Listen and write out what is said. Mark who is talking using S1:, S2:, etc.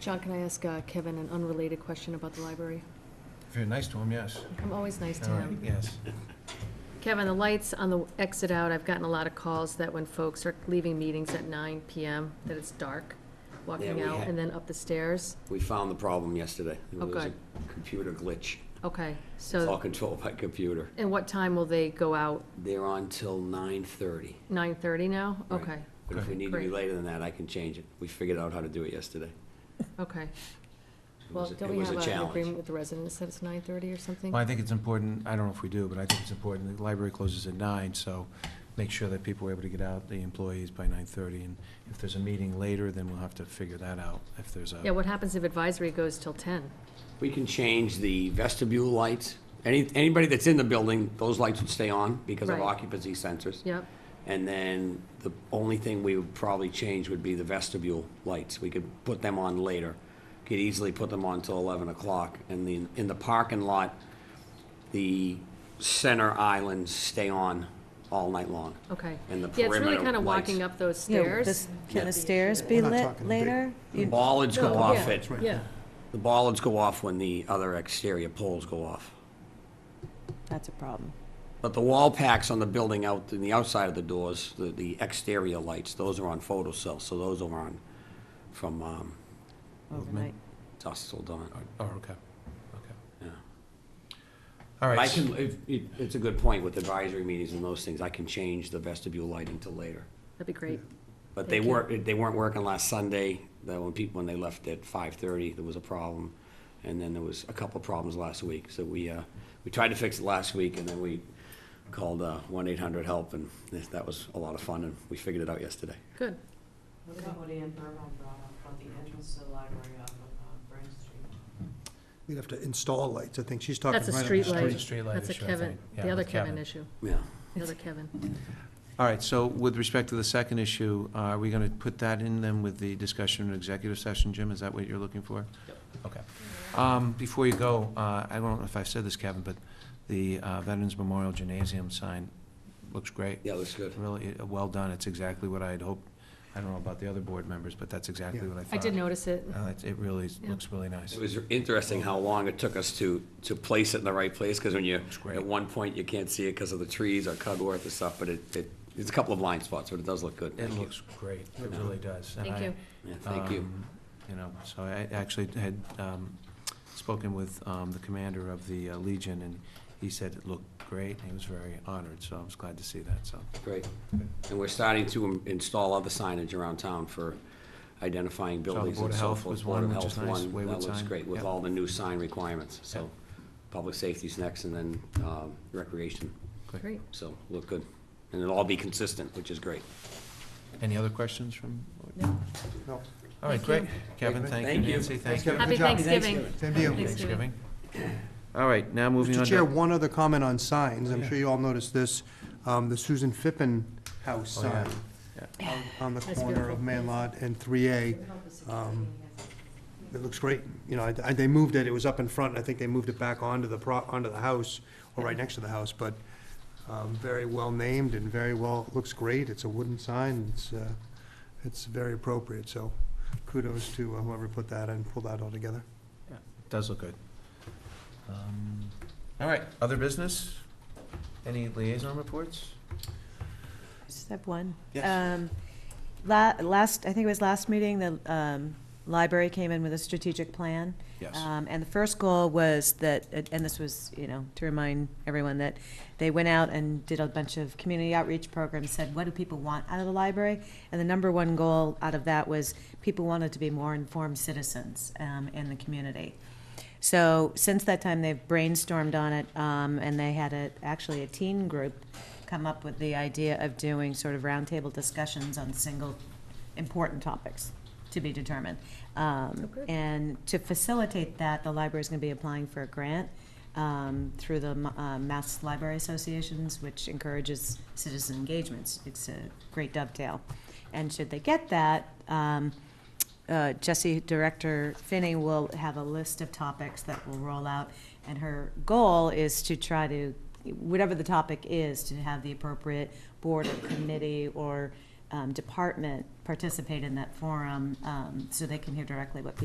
S1: John, can I ask uh, Kevin an unrelated question about the library?
S2: If you're nice to him, yes.
S1: I'm always nice to
S2: All right,
S1: him.
S2: Yes.
S1: Kevin, the lights on the exit out, I've gotten a lot of calls that when folks are leaving meetings at nine PM, that it's dark, walking
S3: we
S1: out
S3: had-
S1: and then up the stairs.
S3: We found the problem yesterday.
S1: Oh,
S3: There was a
S1: good.
S3: computer glitch.
S1: Okay,
S3: It's all
S1: so,
S3: controlled by computer.
S1: and what time will they go out?
S3: They're on till nine thirty.
S1: Nine thirty now? Okay,
S3: But if we need to be
S1: Great.
S3: later than that, I can change it. We figured out how to do it yesterday.
S1: okay.
S3: It
S1: Well,
S3: was a-
S1: don't
S3: it
S1: we
S3: was
S1: have
S3: a
S1: uh, an
S3: challenge.
S1: agreement with the residents that it's nine thirty or something?
S2: Well, I think it's important, I don't know if we do, but I think it's important, the library closes at nine, so make sure that people are able to get out, the employees, by nine-thirty, and if there's a meeting later, then we'll have to figure that out, if there's
S1: Yeah,
S2: a,
S1: what happens if advisory goes till ten?
S3: We can change the vestibule lights. Any, anybody that's in the building, those lights would stay on because of
S1: Right.
S3: occupancy sensors.
S1: Yep,
S3: And then the only thing we would probably change would be the vestibule lights. We could put them on later. Could easily put them on till eleven o'clock. And the, in the parking lot, the center islands stay on all night long.
S1: okay.
S3: And the
S1: Yeah, it's really
S3: perimeter
S1: kind of
S3: lights.
S1: walking up those
S4: Yeah,
S1: stairs.
S4: this- Can the stairs be
S5: We're not
S4: lit
S5: talking
S4: later?
S3: The Hmm.
S4: You-
S3: bollards go
S1: No,
S3: off
S1: Oh, yeah,
S3: at,
S1: Yeah,
S3: the bollards go off when the other exterior poles go off.
S4: That's a problem.
S3: But the wall packs on the building out, in the outside of the doors, the, the exterior lights, those are on photocells, so those are on from, um,
S4: Overnight.
S3: dusk till dawn.
S2: oh, okay, okay.
S3: Yeah.
S2: All
S3: But I
S2: right,
S3: can, if, it, it's a good point with advisory meetings and those things, I can change the vestibule lighting to later.
S1: that'd be great.
S3: But they
S1: Thank you.
S3: weren't, they weren't working last Sunday, that when people, when they left at five thirty, there was a problem. And then there was a couple of problems last week, so we, uh, we tried to fix it last week and then we called, uh, one eight hundred help and that that was a lot of fun and we figured it out yesterday.
S1: Good.
S6: What about what Ann Bourbon brought up, about the entrance to the library off of uh, Burn Street?
S5: We'd have to install lights, I think she's talking.
S1: That's a
S5: right on
S1: street
S5: the
S2: street.
S1: light.
S2: Street light
S1: That's a
S2: issue, I
S1: Kevin,
S2: think. Yeah,
S1: the other
S2: with Kevin.
S1: Kevin issue,
S3: Yeah.
S1: the other Kevin.
S2: all right, so with respect to the second issue, uh, are we gonna put that in then with the discussion in executive session, Jim, is that what you're looking for? Yep. Okay. Um, before you go, uh, I don't know if I've said this, Kevin, but the uh, Veterans Memorial Gymnasium sign looks great.
S3: Yeah, it was good.
S2: Really, uh, well done. It's exactly what I had hoped. I don't know about the other board members, but that's exactly
S5: Yeah.
S2: what I
S1: I
S2: thought.
S1: did notice it.
S2: Uh, it's- It really
S1: Yeah.
S2: looks really nice.
S3: It was interesting how long it took us to, to place it in the right place, because when you,
S2: great.
S3: at one point, you can't see it because of the trees or cudworth and stuff, but it, it, it's a couple of blind spots, but it does look good.
S2: It
S3: Thank you.
S2: looks great. It really does. And
S1: Thank
S2: I-
S1: you.
S3: Yeah, Thank you.
S2: um, You know, so I actually had um, spoken with um, the commander of the uh, Legion, and he said it looked great. and He was very honored, so I was glad to see that, so.
S3: Great. And we're starting to im- install other signage around town for identifying
S2: the
S3: buildings
S2: Board
S3: and
S2: of
S3: so
S2: Health
S3: forth.
S2: was one, which is nice,
S3: one,
S2: Wayward
S3: That looks
S2: sign,
S3: great, with
S2: yep.
S3: all the new sign requirements, so,
S2: Yep.
S3: public safety's next, and then, um, recreation,
S1: Great.
S3: so, look good. And it'll all be consistent, which is great.
S2: Any other questions from?
S1: No.
S5: No.
S2: All right,
S1: Thank
S2: great.
S1: you.
S2: Kevin, thank you.
S3: Thank you.
S2: Nancy, thank you.
S1: Happy
S5: Good job.
S1: Thanksgiving.
S5: Same to you.
S1: Thanks.
S2: Thanksgiving. All right, now moving on
S5: Mr.
S2: to.
S5: Chair, one other comment on signs, I'm
S2: Yeah.
S5: sure you all noticed this, um, the Susan Fippen House
S2: Oh, yeah.
S5: sign out on the
S1: That's
S5: corner
S1: beautiful.
S5: of Manlot and three A. It looks great, you know, I, I- they moved it, it was up in front, and I think they moved it back onto the pro, onto the house, or right next to the house, but, um, very well named and very well, looks great, it's a wooden sign, it's, uh, it's very appropriate, so kudos to uh, whoever put that and pulled that all together.
S2: Does look good. Um, All right, other business? Any liaison reports?
S4: I Just have one.
S2: Yes.
S1: Uh,
S4: Um, la- Last, I think it was last meeting, the um, library came in with a strategic plan.
S2: Yes.
S4: Um, And the first goal was that, and this was, you know, to remind everyone that they went out and did a bunch of community outreach programs, said, what do people want out of the library? And the number one goal out of that was people wanted to be more informed citizens um, in the community. So since that time, they've brainstormed on it, um, and they had a, actually a teen group come up with the idea of doing sort of roundtable discussions on single important topics to be determined. Um,
S1: good.
S4: and to facilitate that, the library is going to be applying for a grant um, through the uh, Mass Library Associations, which encourages citizen engagements. It's a great dovetail. And should they get that, um, uh, Jesse Director Finney will have a list of topics that will roll out, and her goal is to try to, whatever the topic is, to have the appropriate board or committee or um, department participate in that forum um, so they can hear directly what